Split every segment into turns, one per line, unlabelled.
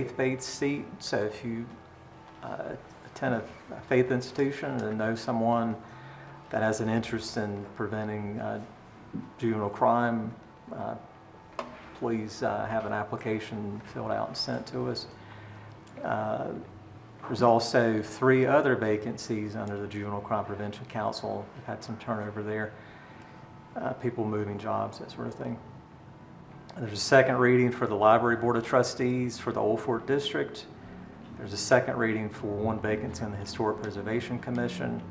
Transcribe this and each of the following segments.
faith-based seat, so if you uh, attend a a faith institution and know someone that has an interest in preventing uh, juvenile crime, uh, please uh, have an application filled out and sent to us. Uh, There's also three other vacancies under the Juvenile Crime Prevention Council. We've had some turnover there, uh, people moving jobs, that sort of thing. There's a second reading for the Library Board of Trustees for the Old Fort District. There's a second reading for one vacancy on the Historic Preservation Commission,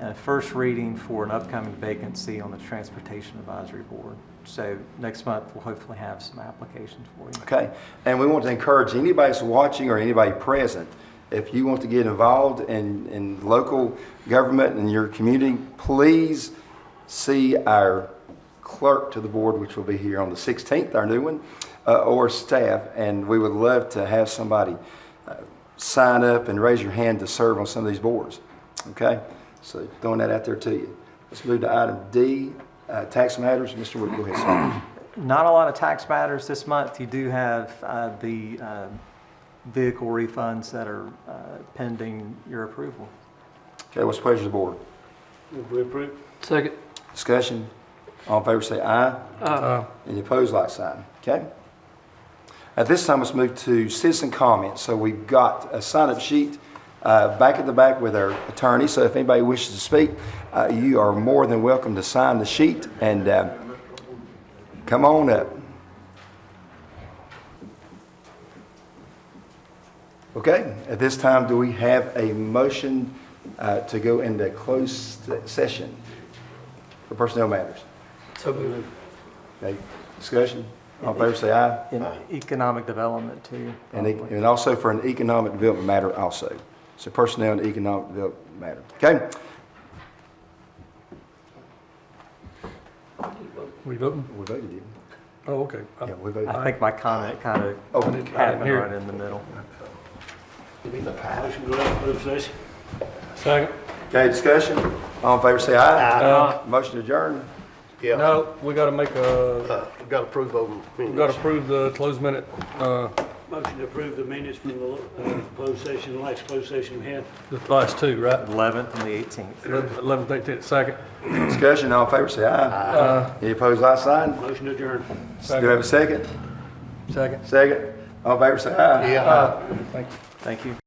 and a first reading for an upcoming vacancy on the Transportation Advisory Board. So next month, we'll hopefully have some applications for you.
Okay, and we want to encourage anybody that's watching or anybody present, if you want to get involved in, in local government and your community, please see our clerk to the board, which will be here on the 16th, our new one, uh, or staff, and we would love to have somebody uh, sign up and raise your hand to serve on some of these boards. Okay, so throwing that out there to you. Let's move to item D, uh, tax matters. Mr. Wood, go ahead, sir.
Not a lot of tax matters this month. You do have uh, the uh, vehicle refunds that are uh, pending your approval.
Okay, what's the pleasure of the board?
Move we approve.
Second.
Discussion? All in favor say aye.
Aye.
Any opposed, like sign. Okay? At this time, let's move to citizen comments. So we've got a sign-up sheet uh, back at the back with our attorney. So if anybody wishes to speak, uh, you are more than welcome to sign the sheet and uh, come on up. Okay, at this time, do we have a motion uh, to go into closed session for personnel matters?
So moved.
Okay, discussion? All in favor, say aye.
in economic development too.
And, e-
probably.
and also for an economic development matter also. So personnel and economic development matter. Okay?
We voting?
We voted, didn't
Oh, okay.
we? Yeah, we voted.
I think my comment kind of
Oh,
happened
hear it.
right in the middle.
Motion go out, closed session.
Second.
Okay, discussion? All in favor, say aye.
Uh,
Motion adjourned.
Yeah,
No, we gotta make a,
uh, we gotta approve over
we gotta
minutes.
approve the closed minute. Uh,
Motion to approve the minutes from the uh, closed session, last closed session we had.
the last two, right?
11th and the 18th.
Eleven, eighteen, second. Uh,
Discussion, all in favor, say
Uh-huh.
aye. Any opposed, like sign?
Motion adjourned.
Do we have a second?
Second.
Second? All in favor, say aye.
Yeah.
Thank you.
Thank you.